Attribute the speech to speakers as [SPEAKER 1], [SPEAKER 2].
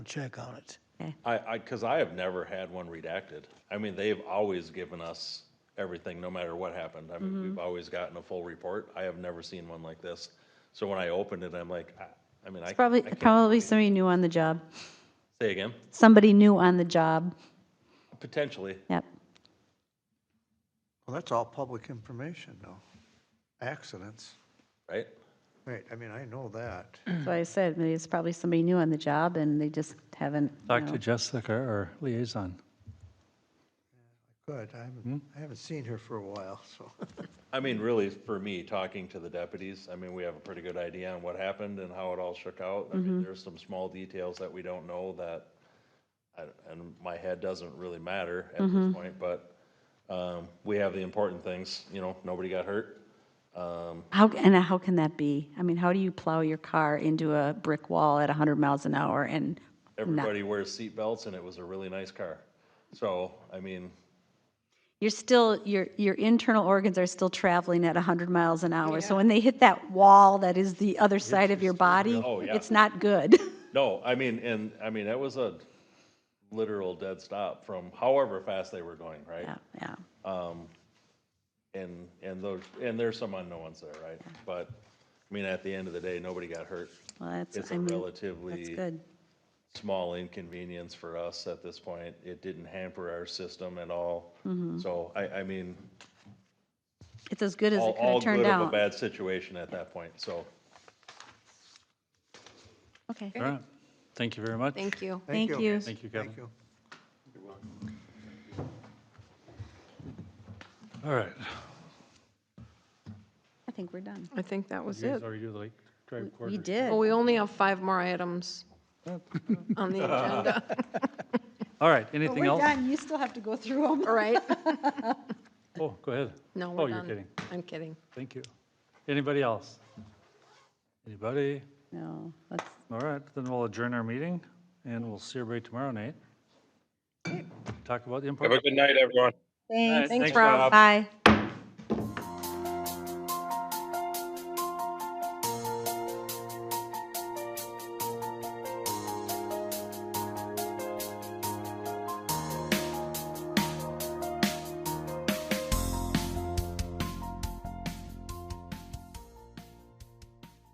[SPEAKER 1] check on it.
[SPEAKER 2] I, I, because I have never had one redacted. I mean, they've always given us everything, no matter what happened. I mean, we've always gotten a full report. I have never seen one like this. So when I opened it, I'm like, I, I mean, I.
[SPEAKER 3] Probably,
[SPEAKER 2] I can't-
[SPEAKER 3] probably somebody new on the job.
[SPEAKER 2] Say again,
[SPEAKER 3] Somebody new on the job.
[SPEAKER 2] potentially.
[SPEAKER 3] Yep.
[SPEAKER 1] Well, that's all public information, though. Accidents.
[SPEAKER 2] right?
[SPEAKER 1] Right, I mean, I know that.
[SPEAKER 3] So I said, maybe it's probably somebody new on the job and they just haven't, you
[SPEAKER 4] Talk
[SPEAKER 3] know.
[SPEAKER 4] to Jessica, our liaison.
[SPEAKER 1] Good, I haven't, I haven't seen her for a while, so.
[SPEAKER 2] I mean, really, for me, talking to the deputies, I mean, we have a pretty good idea on what happened and how it all shook out. I mean, there's some small details that we don't know that, I- and my head doesn't really matter at this point, but um, we have the important things, you know, nobody got hurt.
[SPEAKER 3] How, and how can that be? I mean, how do you plow your car into a brick wall at 100 miles an hour and not?
[SPEAKER 2] Everybody wears seatbelts, and it was a really nice car. So, I mean,
[SPEAKER 3] You're still, your, your internal organs are still traveling at 100 miles an hour. So when they hit that wall that is the other side of your body,
[SPEAKER 2] Oh, yeah.
[SPEAKER 3] it's not good.
[SPEAKER 2] no, I mean, and, I mean, that was a literal dead stop from however fast they were going, right?
[SPEAKER 3] Yeah, yeah.
[SPEAKER 2] And, and those, and there's some unknowns there, right? But, I mean, at the end of the day, nobody got hurt.
[SPEAKER 3] Well, that's,
[SPEAKER 2] It's
[SPEAKER 3] I
[SPEAKER 2] a
[SPEAKER 3] mean, that's
[SPEAKER 2] relatively
[SPEAKER 3] good.
[SPEAKER 2] small inconvenience for us at this point. It didn't hamper our system at all.
[SPEAKER 3] Mm-hmm.
[SPEAKER 2] So I, I mean,
[SPEAKER 3] It's as good as
[SPEAKER 2] all,
[SPEAKER 3] it could
[SPEAKER 2] all
[SPEAKER 3] have turned
[SPEAKER 2] good of a
[SPEAKER 3] out.
[SPEAKER 2] bad situation at that point, so.
[SPEAKER 3] Okay,
[SPEAKER 4] All right. Thank you very much.
[SPEAKER 5] Thank you.
[SPEAKER 3] thank you.
[SPEAKER 4] Thank you, Kevin.
[SPEAKER 1] Thank you.
[SPEAKER 4] All right.
[SPEAKER 3] I think we're done.
[SPEAKER 5] I think that was
[SPEAKER 4] You guys
[SPEAKER 5] it.
[SPEAKER 4] already do the Lake Drive
[SPEAKER 3] We
[SPEAKER 4] corridor.
[SPEAKER 3] did.
[SPEAKER 5] Well, we only have five more items
[SPEAKER 4] Oh.
[SPEAKER 5] on the agenda,
[SPEAKER 4] All right, anything else?
[SPEAKER 3] You still have to go through them.
[SPEAKER 5] right?
[SPEAKER 4] Oh, go ahead.
[SPEAKER 5] No,
[SPEAKER 4] Oh,
[SPEAKER 5] we're done.
[SPEAKER 4] you're kidding.
[SPEAKER 5] I'm kidding.
[SPEAKER 4] Thank you. Anybody else? Anybody?
[SPEAKER 3] No, that's,
[SPEAKER 4] All right, then we'll adjourn our meeting and we'll see everybody tomorrow night. Talk about
[SPEAKER 6] Have a
[SPEAKER 4] the important.
[SPEAKER 6] good night, everyone.
[SPEAKER 3] thanks.
[SPEAKER 4] Thanks,
[SPEAKER 5] Rob.
[SPEAKER 3] Bye.